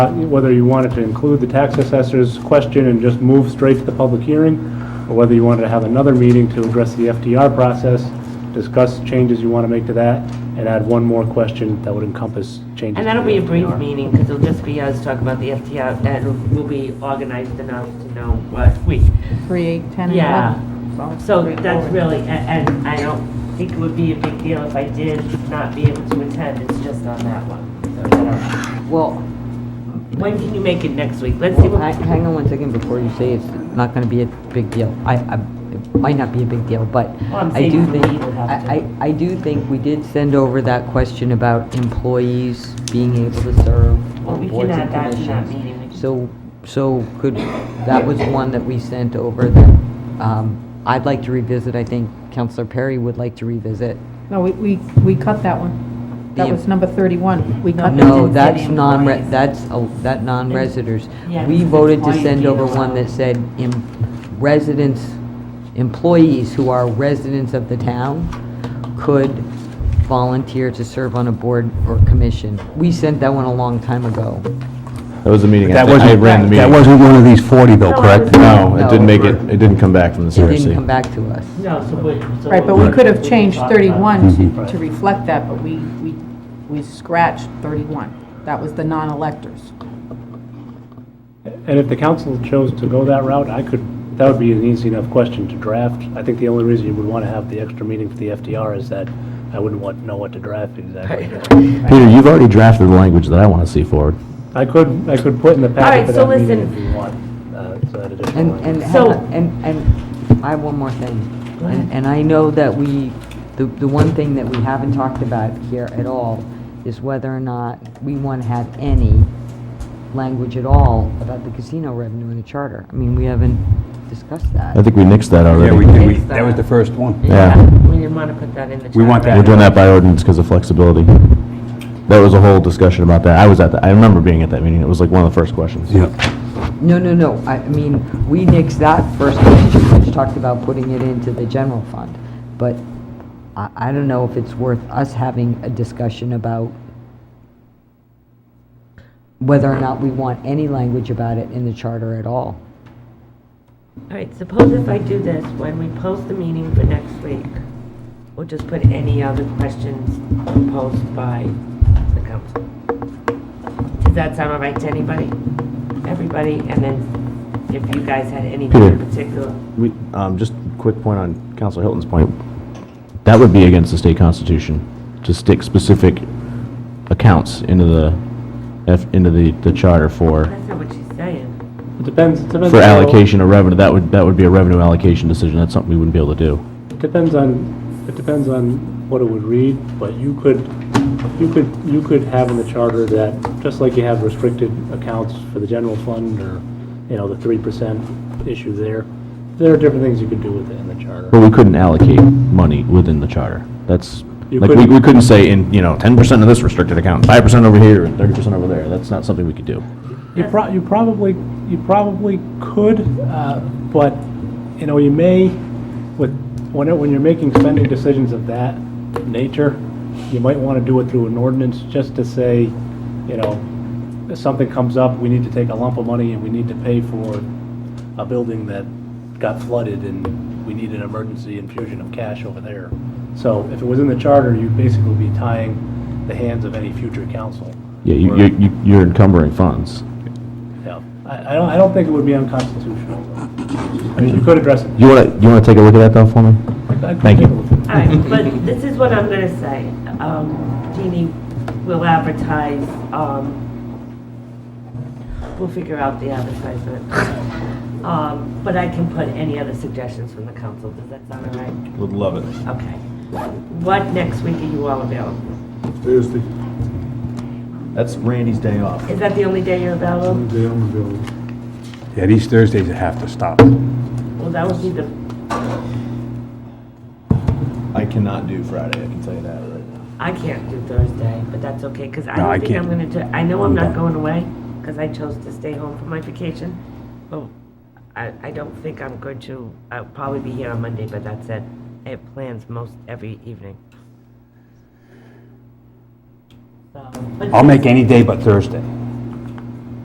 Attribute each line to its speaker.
Speaker 1: uh, whether you wanted to include the tax assessor's question and just move straight to the public hearing, or whether you wanted to have another meeting to address the FDR process, discuss changes you want to make to that, and add one more question that would encompass changes.
Speaker 2: And
Speaker 1: to
Speaker 2: that'll
Speaker 1: the
Speaker 2: be a brief
Speaker 1: FDR.
Speaker 2: meeting, because it'll just be us talking about the FTR, that will be organized enough to know what we,
Speaker 3: 3, 8, 10, and 11.
Speaker 2: yeah.
Speaker 3: Sounds
Speaker 2: So
Speaker 3: pretty
Speaker 2: that's
Speaker 3: forward.
Speaker 2: really, a- and I don't think it would be a big deal if I did not be able to attend, it's just on that one. So, whatever.
Speaker 4: Well,
Speaker 2: When can you make it next week? Let's see
Speaker 4: hang,
Speaker 2: what,
Speaker 4: hang on one second before you say it's not gonna be a big deal. I, I, it might not be a big deal, but
Speaker 2: Well, I'm
Speaker 4: I do
Speaker 2: saying for
Speaker 4: think,
Speaker 2: me, it would have to.
Speaker 4: I, I, I do think we did send over that question about employees being able to serve
Speaker 2: Well,
Speaker 4: on
Speaker 2: we can
Speaker 4: boards and
Speaker 2: add that to that meeting. We
Speaker 4: commissions.
Speaker 2: can-
Speaker 4: So, so could, that was one that we sent over that, um, I'd like to revisit, I think Counselor Perry would like to revisit.
Speaker 3: No, we, we we cut that one. That
Speaker 4: The-
Speaker 3: was number 31. We cut that.
Speaker 4: No,
Speaker 2: Didn't say
Speaker 4: that's
Speaker 2: the
Speaker 4: non,
Speaker 2: employees.
Speaker 4: that's, a- that non-residents.
Speaker 2: Yeah,
Speaker 4: We
Speaker 2: it's
Speaker 4: voted to
Speaker 2: employee
Speaker 4: send over
Speaker 2: data.
Speaker 4: one that said em- residents, employees who are residents of the town could volunteer to serve on a board or commission. We sent that one a long time ago.
Speaker 5: That was the meeting.
Speaker 6: That
Speaker 5: I- I
Speaker 6: wasn't,
Speaker 5: ran the meeting.
Speaker 6: that wasn't one of these 40 though,
Speaker 2: No, it
Speaker 6: correct?
Speaker 2: was-
Speaker 5: No, it didn't
Speaker 4: No.
Speaker 5: make it, it didn't come back from the
Speaker 4: It
Speaker 5: CRC.
Speaker 4: didn't come back to us.
Speaker 2: no, so we. so
Speaker 3: Right, but we
Speaker 2: we'll-
Speaker 3: could have
Speaker 2: we'll
Speaker 3: changed
Speaker 2: talk about it.
Speaker 3: 31
Speaker 6: Mm-hmm.
Speaker 3: to- to reflect that, but we, we we scratched 31. That was the non-electors.
Speaker 1: And if the council chose to go that route, I could, that would be an easy enough question to draft. I think the only reason you would want to have the extra meeting for the FDR is that I wouldn't want, know what to draft exactly.
Speaker 5: Peter, you've already drafted the language that I want to see forward.
Speaker 1: I could, I could put in the
Speaker 2: right,
Speaker 1: packet for
Speaker 2: so
Speaker 1: that meeting
Speaker 2: listen.
Speaker 1: if you want, uh, so that additional
Speaker 4: And,
Speaker 1: language.
Speaker 4: and,
Speaker 2: So-
Speaker 4: and, and I have one more thing. And and I know that we, the, the one thing that we haven't talked about here at all is whether or not we want to have any language at all about the casino revenue in the charter. I mean, we haven't discussed that.
Speaker 5: I think we nixed that already.
Speaker 6: Yeah, we did, we,
Speaker 2: It's
Speaker 6: that was the
Speaker 2: that.
Speaker 6: first one.
Speaker 5: Yeah.
Speaker 2: uh, We didn't want to put that in the.
Speaker 6: We want
Speaker 2: charter.
Speaker 5: We're doing that by ordinance because of flexibility. There was a whole discussion about that. I was at that, I remember being at that meeting. It was like one of the first questions.
Speaker 6: Yeah.
Speaker 4: No, no, no, I, I mean, we nixed that first question, which talked about putting it into the general fund. But I, I don't know if it's worth us having a discussion about whether or not we want any language about it in the charter at all.
Speaker 2: All right, suppose if I do this, when we post the meeting for next week, we'll just put any other questions proposed by the council. Does that sound all right to anybody? Everybody, and then if you guys had anything in
Speaker 5: Peter.
Speaker 2: particular,
Speaker 5: We, um, just a quick point on Counselor Hilton's point. That would be against the state constitution, to stick specific accounts into the, F- into the, the charter for,
Speaker 2: that's not what she's saying.
Speaker 1: It depends, it depends.
Speaker 5: for
Speaker 1: on-
Speaker 5: allocation of revenue. That would, that would be a revenue allocation decision. That's something we wouldn't be able to do.
Speaker 1: It Depends on, it depends on what it would read, but you could, you could, you could have in the charter that, just like you have restricted accounts for the general fund or, you know, the three percent issue there, there are different things you could do with it in the charter.
Speaker 5: But we couldn't allocate money within the charter. That's,
Speaker 1: You
Speaker 5: like, we,
Speaker 1: couldn't-
Speaker 5: we couldn't say in, you know, ten percent of this restricted account, five percent over here, and thirty percent over there. That's not something we could do.
Speaker 1: You pro, you probably, you probably could, uh, but, you know, you may, with, when, it- when you're making spending decisions of that nature, you might want to do it through an ordinance just to say, you know, if something comes up, we need to take a lump of money and we need to pay for a building that got flooded and we need an emergency infusion of cash over there. So if it was in the charter, you'd basically be tying the hands of any future council.
Speaker 5: Yeah, you, you- you, you're encumbering funds.
Speaker 1: Yeah, I, I don't, I don't think it would be unconstitutional. I mean, you could address it.
Speaker 5: You wanna, you wanna take a look at that though for me?
Speaker 1: I could
Speaker 5: Thank you.
Speaker 1: take a look at it.
Speaker 2: All right, but this is what I'm gonna say. Um, Jeannie will advertise, um, we'll figure out the advertisement. Um, but I can put any other suggestions from the council. Does that sound all right?
Speaker 5: Would love it.
Speaker 2: Okay. What next week are you all available?
Speaker 7: Thursday,
Speaker 5: That's Randy's day off.
Speaker 2: Is that the only day you're available?
Speaker 7: Monday, I'm available.
Speaker 6: Yeah, these Thursdays I have to stop.
Speaker 2: Well, that would be the,
Speaker 5: I cannot do Friday, I can tell you that right now.
Speaker 2: I can't do Thursday, but that's okay, because I
Speaker 6: No, I
Speaker 2: don't think I'm gonna
Speaker 6: can't.
Speaker 2: do, I know I'm not
Speaker 6: Okay.
Speaker 2: going away, because I chose to stay home for my vacation.
Speaker 6: Oh.
Speaker 2: But I, I don't think I'm going to, I'll probably be here on Monday, but that's it. I have plans most every evening. So, but
Speaker 6: I'll make any day but Thursday.